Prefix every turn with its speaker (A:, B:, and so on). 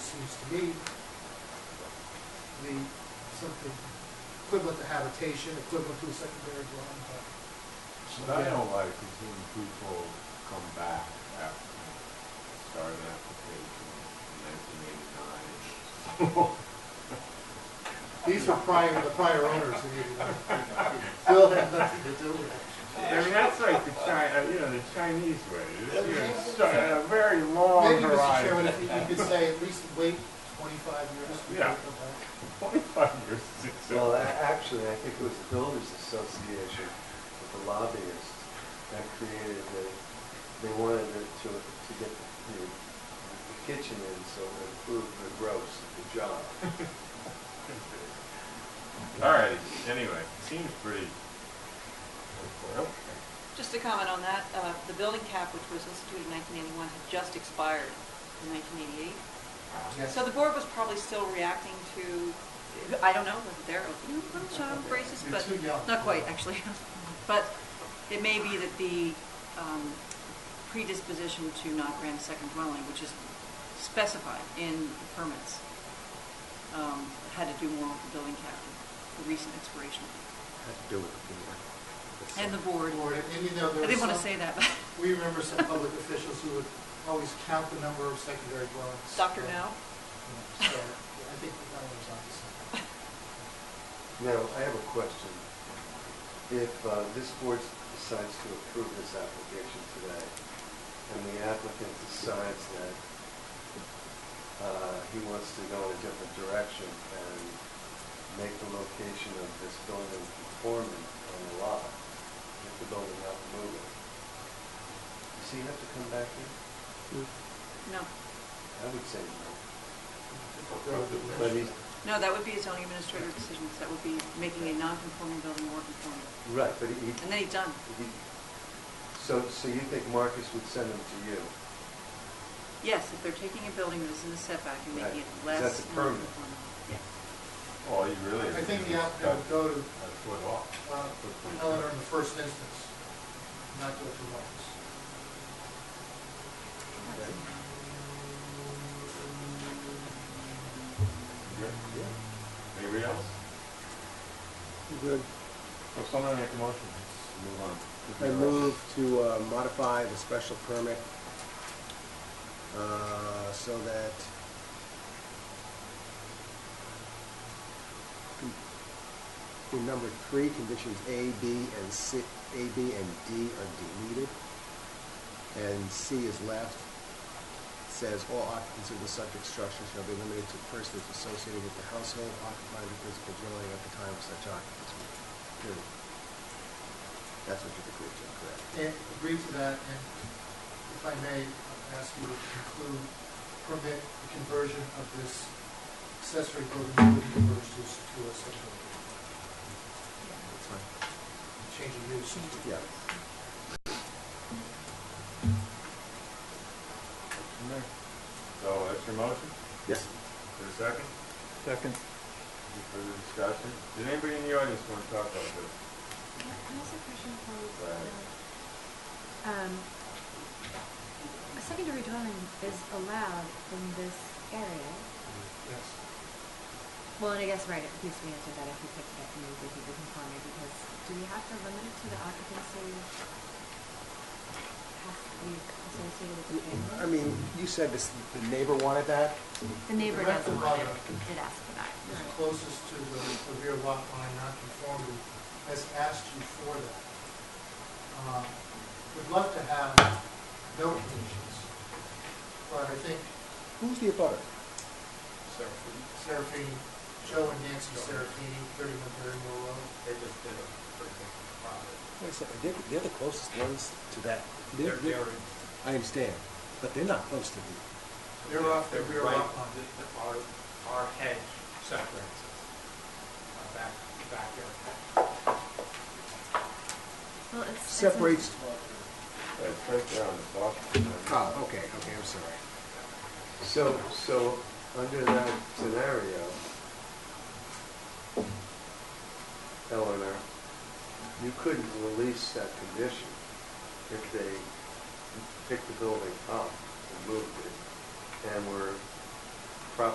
A: used to be the, something equivalent to habitation, equivalent to a secondary dwelling, but
B: What I don't like is when people come back after, start an application in nineteen eighty-nine.
A: these were prior, the prior owners who needed them. Bill had nothing to do with it.
B: I mean, that's like the Chi, uh, you know, the Chinese way, It's, you know, start a very long
A: Maybe, Mr. Chairman, if
B: horizon.
A: you you could say at least wait twenty-five years. to
B: Yeah.
A: come back.
B: Twenty-five years, six,
C: Well, a-
B: seven.
C: actually, I think it was the Builders Association with the lobbyists that created the, they wanted it to, to get the, the kitchen in so it improved the gross of the job.
B: All right, anyway, seems pretty. Well,
D: Just to comment on that, uh, the building cap, which was instituted in 1981, had just expired in 1988.
A: Yes.
D: So the board was probably still reacting to, I don't know, was it their opening approach on braces?
A: You're
D: but
A: too young.
D: Not quite, actually. But it may be that the um, predisposition to not grant a second dwelling, which is specified in permits, um, had to do more with the building cap, the recent expiration.
E: had to do with the board.
D: And the board,
A: Lord,
D: I
A: and you know, there was
D: didn't want to
A: some-
D: say that, but
A: We remember some public officials who would always count the number of secondary dwellings.
D: Dr.
A: Yeah.
D: No?
A: Yeah, So I think the governor's on to something.
C: Now, I have a question. If uh, this board decides to approve this application today, and the applicant decides that uh, he wants to go in a different direction and make the location of this building conforming on the lot, if the building not moving, does he have to come back here?
D: Hmm. No,
C: I would say no. But
A: Governor.
C: he's,
D: no, that would be a zoning administrator decision, that would be making a non-conforming building more conforming.
C: right, but he,
D: And then he's done.
C: he, so, so you think Marcus would send him to you?
D: Yes, if they're taking a building that is in the setback and making it
C: Right, 'cause
D: less.
C: that's a permit.
D: non-conforming. Yeah.
B: Well, you really.
A: I think the applicant would go to
B: A foot off.
A: uh, Eleanor in the first instance, not go to Marcus.
B: Good. Anybody else?
E: Good.
B: Well, someone make a motion. Move on.
E: I move to uh, modify the special permit uh, so that in number three, conditions A, B, and C, A, B, and D are deleted, and C is left. Says all occupants of the subject structure shall be limited to persons associated with the household occupying the principal dwelling at the time of such occupancy. Period. That's what you're agreeing to, correct?
A: And agree to that, and if I may, I'll ask you to conclude, permit the conversion of this accessory building to be converted to s- to a secondary,
E: That's fine.
A: dwelling, change of use.
E: Yeah.
B: So that's your motion?
E: Yes.
B: For a second? Second. Any further discussion? Did anybody in the audience want to talk about this?
F: Can I ask a question, please?
B: Go ahead.
F: Um, A secondary dwelling is allowed in this area.
A: Yes.
F: Well, and I guess, right, it needs to be answered that if we picked it up and moved it to conformity, because do we have to limit it to the occupancy? Has to be associated with the family?
E: I mean, you said this, the neighbor wanted that?
F: The neighbor
A: Correct the
F: doesn't want it,
A: bylaw.
F: did ask for that.
A: is closest to the the rear lot line nonconformity has asked you for that. Uh, Would love to have no conditions, but I think
E: Who's the abutter?
A: Seraphine, Joe and Nancy Seraphine, 31 Barrymore Road. They just did a pretty big project.
E: Wait a second, they're, they're the closest ones to that. They're- they're- I understand, but they're not close to the,
A: They're off the rear
G: right,
A: lot line.
G: the- the- Our, our hedge separates us, our back, backyard hedge.
F: Well, it's. it's an-
E: separates,
B: That's Uh, right there on the block.
E: oh, okay, okay, I'm sorry.
C: So, so, under that scenario, Eleanor, you couldn't release that condition if they picked the building up and moved it and were